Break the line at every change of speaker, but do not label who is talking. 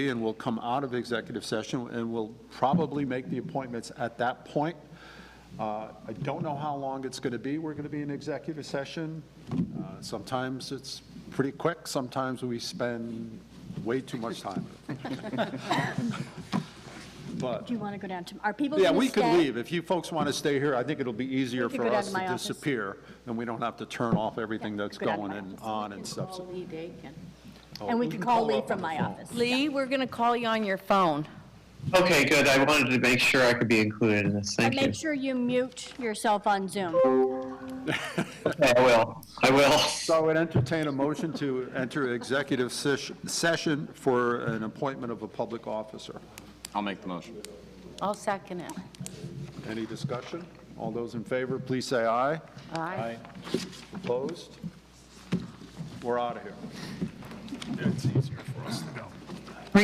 and we'll come out of executive session, and we'll probably make the appointments at that point. Uh, I don't know how long it's going to be. We're going to be in executive session. Uh, Sometimes it's pretty quick, sometimes we spend way too much time. But,
Do you want to go down to, are people going to
yeah, we
stay?
could leave. If you folks want to stay here, I think it'll be easier
could
for
go down
us
to
to
my office.
disappear, and we don't have to turn off everything
Yeah,
that's
go down to
going
my
and
office.
on and stuff. So- Oh,
And we could call Lee from my office.
Lee, we're going to call you on your phone.
Okay, good. I wanted to make sure I could be included in this.
And
Thank you.
make sure you mute yourself on Zoom.
Okay, I will. I will.
So I would entertain a motion to enter executive sesh- session for an appointment of a public officer.
I'll make the motion.
I'll second it.
Any discussion? All those in favor, please say aye.
Aye.
Opposed? We're out of here. It's easier for us to go.